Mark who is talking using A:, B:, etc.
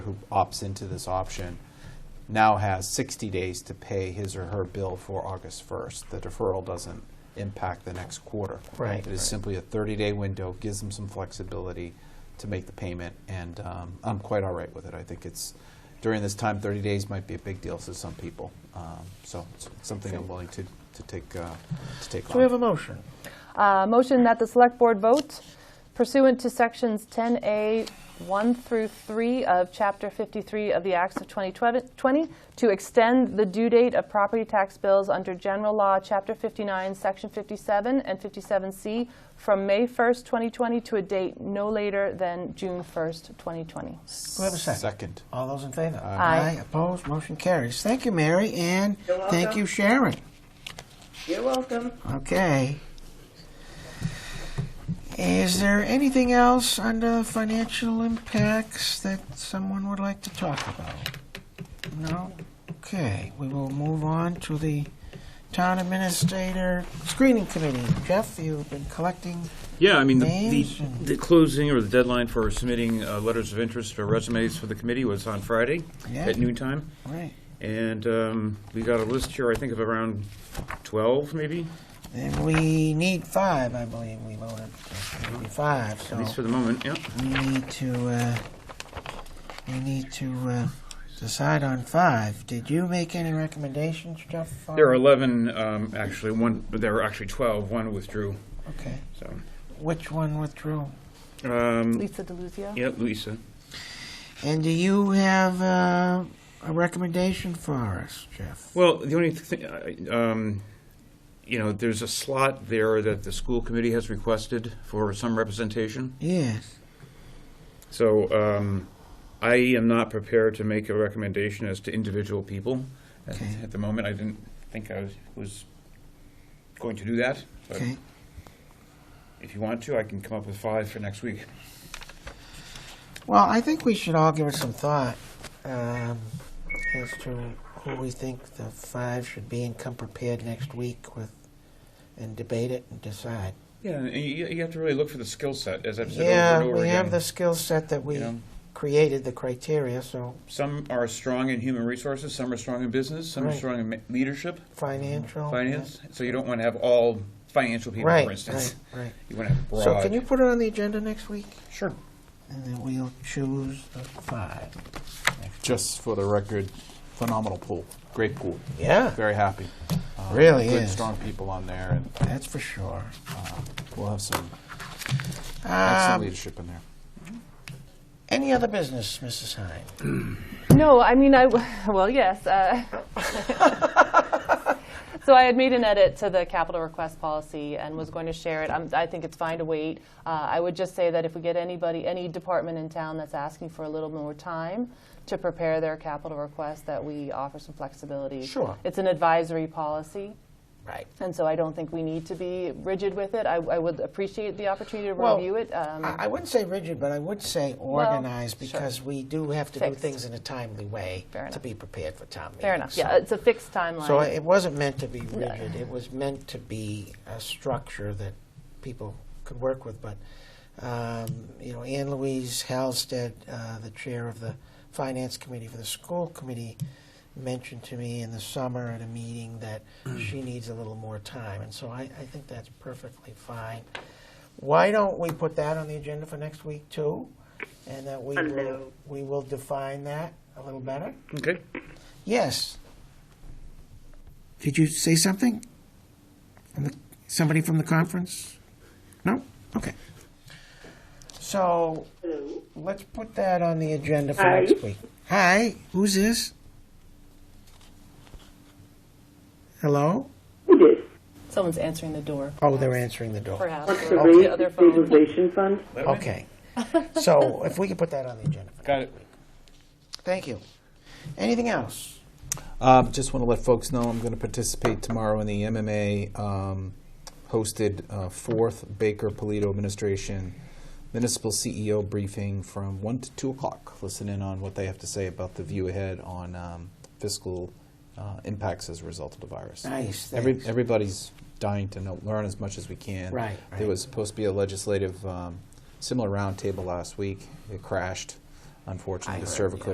A: who opts into this option now has 60 days to pay his or her bill for August 1st. The deferral doesn't impact the next quarter.
B: Right.
A: It is simply a 30-day window, gives them some flexibility to make the payment, and um, I'm quite all right with it. I think it's, during this time, 30 days might be a big deal to some people. Um, So it's something I'm willing to, to take, uh, to take on.
B: So we have a motion.
C: Uh, Motion that the Select Board vote pursuant to Sections 10A, 1 through 3 of Chapter 53 of the Acts of 2020, to extend the due date of property tax bills under General Law, Chapter 59, Section 57 and 57C, from May 1st, 2020 to a date no later than June 1st, 2020.
B: Do we have a second?
A: Second.
B: All those in favor?
C: Aye.
B: Opposed? Motion carries. Thank you, Mary, and
D: You're welcome.
B: thank you, Sharon.
D: You're welcome.
B: Okay. Is there anything else under financial impacts that someone would like to talk about? No? Okay, we will move on to the Town Administrator Screening Committee. Jeff, you've been collecting,
E: Yeah, I mean, the,
B: Names
E: the,
B: and-
E: the closing or the deadline for submitting uh, letters of interest or resumes for the committee was on Friday
B: Yeah.
E: at noon time.
B: right,
E: And um, we got a list here, I think, of around 12, maybe,
B: and we need five, I believe we voted, We need five, so.
E: at least for the moment, yeah.
B: We need to, uh, we need to, uh, decide on five. Did you make any recommendations, Jeff? on-
E: There are 11, um, actually, one, there were actually 12, one withdrew,
B: Okay.
E: so.
B: Which one withdrew?
E: Um,
C: Lisa DeLuzio?
E: Yep, Lisa.
B: And do you have, uh, a recommendation for us, Jeff?
E: Well, the only thing, I- um, you know, there's a slot there that the school committee has requested for some representation.
B: Yes.
E: So um, I am not prepared to make a recommendation as to individual people at,
B: Okay.
E: at the moment. I didn't think I was, was going to do that. But
B: Okay.
E: if you want to, I can come up with five for next week.
B: Well, I think we should all give it some thought, um, as to who we think the five should be and come prepared next week with, and debate it and decide.
E: Yeah, and you, you have to really look for the skill set, as I've said
B: Yeah,
E: over and over
B: we
E: again.
B: have the skill set that
E: you
B: we
E: know,
B: created the criteria, so
E: some are strong in human resources, some are strong in business, some are
B: Right.
E: strong in ma- leadership,
B: financial.
E: Mm-hmm. finance. So you don't want to have all financial people,
B: Right,
E: for instance.
B: right,
E: You want to have
B: right.
E: broad.
B: So can you put it on the agenda next week?
E: Sure.
B: And then we'll choose the five.
A: Just for the record, phenomenal pool, great pool.
B: Yeah,
A: Very happy. Uh,
B: Really
A: Good,
B: is.
A: strong people on there, and
B: that's for sure.
A: we'll have some excellent
B: Um,
A: leadership in there.
B: Any other business, Mrs. Hine?
C: No, I mean, I, w- well, yes. uh, So I had made an edit to the capital request policy and was going to share it. I'm- I think it's fine to wait. Uh, I would just say that if we get anybody, any department in town that's asking for a little more time to prepare their capital request, that we offer some flexibility.
B: Sure.
C: It's an advisory policy,
B: Right.
C: and so I don't think we need to be rigid with it. I I would appreciate the opportunity to
B: Well,
C: review it. um,
B: I I wouldn't say rigid, but I would say organized, because we do have to do
C: Fixed.
B: things in a timely way
C: Fair
B: to
C: enough.
B: be prepared for town meeting.
C: Fair enough. Yeah,
B: so-
C: it's a fixed timeline.
B: So it wasn't meant to be rigid, it was meant to be a structure that people could work with, but, um, you know, Anne Louise Halstead, uh, the chair of the Finance Committee for the School Committee, mentioned to me in the summer at a meeting that she needs a little more time, and so I, I think that's perfectly fine. Why don't we put that on the agenda for next week too? And that we will,
D: Hello.
B: we will define that a little better?
E: Okay.
B: Yes. Did you say something? From the- Somebody from the conference? No? Okay. So,
D: Hello.
B: let's put that on the agenda for
D: Hi.
B: next week. Hi, who's this? Hello?
D: Who did?
C: Someone's answering the door.
B: Oh, they're answering the door.
C: Perhaps.
D: What's
C: or
D: the
C: the
D: rate
C: other
D: of
C: phone.
D: stabilization fund?
B: Okay. So, if we could put that on the agenda. for-
E: Got it.
B: Thank you. Anything else?
A: Um, just want to let folks know I'm going to participate tomorrow in the MMA um, hosted uh, fourth Baker Polito administration municipal CEO briefing from 1 to 2 o'clock. Listen in on what they have to say about the view ahead on um, fiscal uh, impacts as a result of the virus.
B: Nice,
A: Every,
B: thanks.
A: everybody's dying to know, learn as much as we can.
B: Right,
A: There
B: right.
A: was supposed to be a legislative um, similar roundtable last week. It crashed, unfortunately.
B: I
A: the
B: heard,
A: server
B: yeah.
A: couldn't